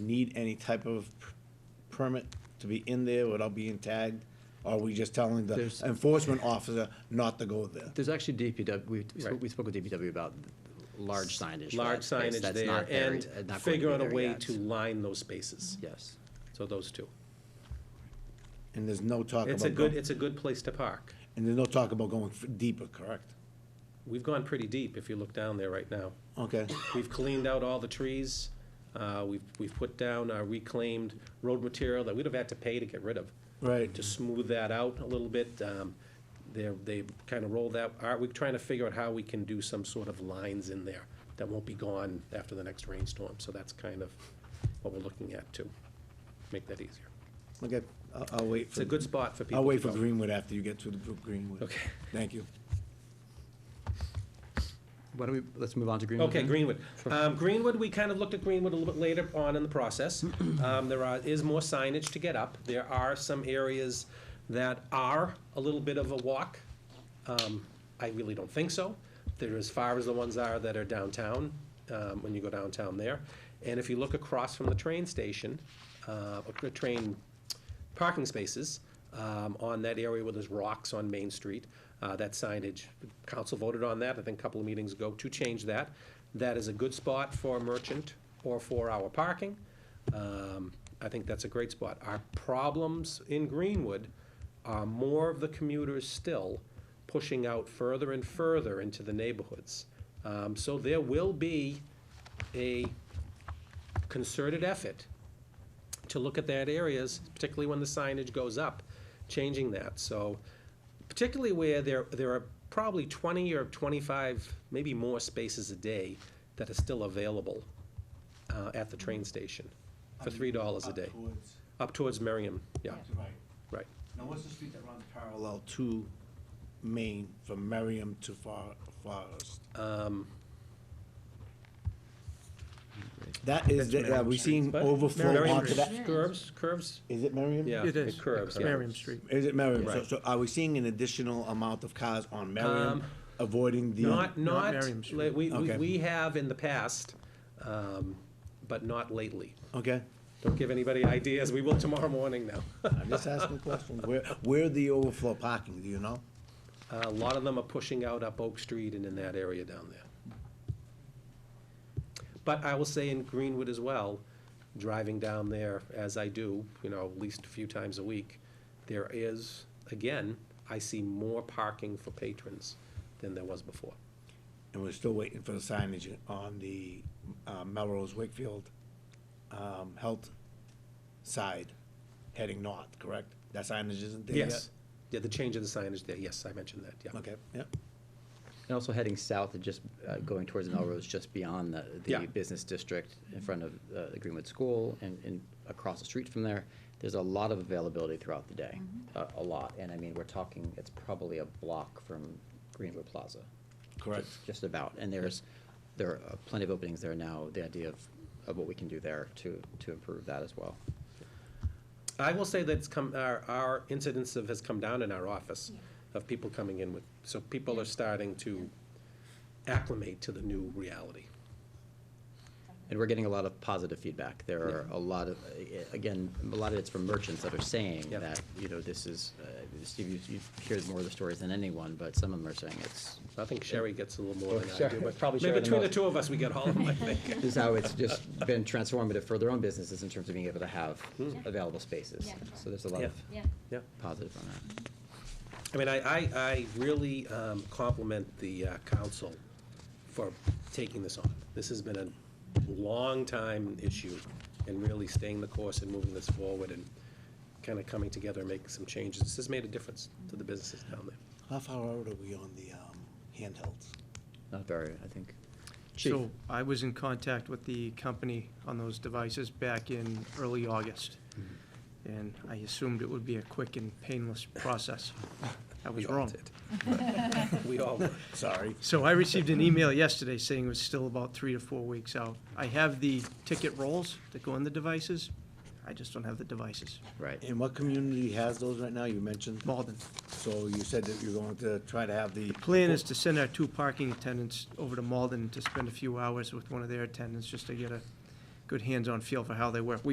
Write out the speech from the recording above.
need any type of p- permit to be in there without being tagged? Or are we just telling the There's- enforcement officer not to go there? There's actually DPW, we, we spoke- Right. we spoke with DPW about large signage. for large that space. signage That's there, not and uh, not going to figure be out a there way yet. to line those spaces. Yes. So those two. And there's no talk It's a about, good, go- it's a good place to park. and there's no talk about going f- deeper, correct? We've gone pretty deep, if you look down there right now. Okay, We've cleaned out all the trees, uh, we've, we've put down uh, reclaimed road material that we'd have had to pay to get rid of. right, To smooth that out a little bit, um, they're, they kind of rolled that, are, we're trying to figure out how we can do some sort of lines in there that won't be gone after the next rainstorm, so that's kind of what we're looking at to make that easier. okay, I'll, I'll wait It's for, a good spot for people I'll wait to for go. Greenwood after you get to the group Greenwood. Okay. Thank you. Why don't we, let's move on to Greenwood. Okay, then? Greenwood. Um, Greenwood, we kind of looked at Greenwood a little bit later on in the process. Um, there are, is more signage to get up. There are some areas that are a little bit of a walk. Um, I really don't think so. They're as far as the ones are that are downtown, um, when you go downtown there. And if you look across from the train station, uh, the train parking spaces um, on that area where there's rocks on Main Street, uh, that signage. Council voted on that, I think a couple of meetings ago, to change that. That is a good spot for merchant or for our parking. Um, I think that's a great spot. Our problems in Greenwood are more of the commuters still pushing out further and further into the neighborhoods. Um, So there will be a concerted effort to look at that areas, particularly when the signage goes up, changing that. So particularly where there, there are probably 20 or 25, maybe more spaces a day that are still available uh, at the train station for $3 a day. Up towards Merriam, yeah, right. Now, what's the street that runs parallel to Maine from Merriam to Fo- Forest? Um, That is, the- are we seeing But- overflow Merriam onto that? Curves, curves, Is it Merriam? yeah. It is. Curves, yeah. Merriam Street. Is it Merriam? So, Right. so are we seeing an additional amount of cars on Merriam Um, avoiding the? Not, not, Merriam Street. like, we, we Okay. we have in the past, um, but not lately. Okay, Don't give anybody ideas, we will tomorrow morning now. I'm just asking questions. Where, where the overflow parking, do you know? A lot of them are pushing out up Oak Street and in that area down there. But I will say in Greenwood as well, driving down there as I do, you know, at least a few times a week, there is, again, I see more parking for patrons than there was before. And we're still waiting for the signage on the uh, Melrose Wakefield um, Health side, heading north, correct? That signage isn't there yet? Yes, yeah, the change of the signage there, yes, I mentioned that, yeah. Okay, yeah. And also heading south and just uh, going towards Melrose, just beyond the, Yeah. the business district in front of uh, the Greenwood School and, and across the street from there. There's a lot of availability throughout the day, a, Mm-hmm. a lot. And I mean, we're talking, it's probably a block from Greenwood Plaza. Correct. just- Just about, and there's, there are plenty of openings there now, the idea of, of what we can do there to, to improve that as well. I will say that it's come, our, our incidence of, has come down in our office of people coming in with, so people are starting to acclimate to the new reality. And we're getting a lot of positive feedback. There are a lot of, a- again, a lot of it's from merchants that are saying Yeah. that, you know, this is, uh, Steve, you, you hear more of the stories than anyone, but some of them are saying it's, I think Sherry gets a little more than I Sher- do, but probably Oh, maybe Sherry the between the most. two of us, we get all of them, I think. this is how it's just been transformative for their own businesses in terms of being able to have Yeah. available spaces. Yeah. So there's a lot of Yeah, Yeah, positive on that. I mean, I, I, I really um, compliment the uh, council for taking this on. This has been a long-time issue, and really staying the course and moving this forward and kind of coming together and making some changes. This has made a difference to the businesses down there. How far out are we on the um, handhelds? Not very, I think. Chief, So I was in contact with the company on those devices back in early August. And I assumed it would be a quick and painless process. I was We all wrong. did. We all were. Sorry. So I received an email yesterday saying it was still about three to four weeks out. I have the ticket rolls that go in the devices. I just don't have the devices. right. And what community has those right now? You mentioned, Malden. so you said that you're going to try to have the. Plan is to send our two parking attendants over to Malden to spend a few hours with one of their attendants, just to get a good hands-on feel for how they work. We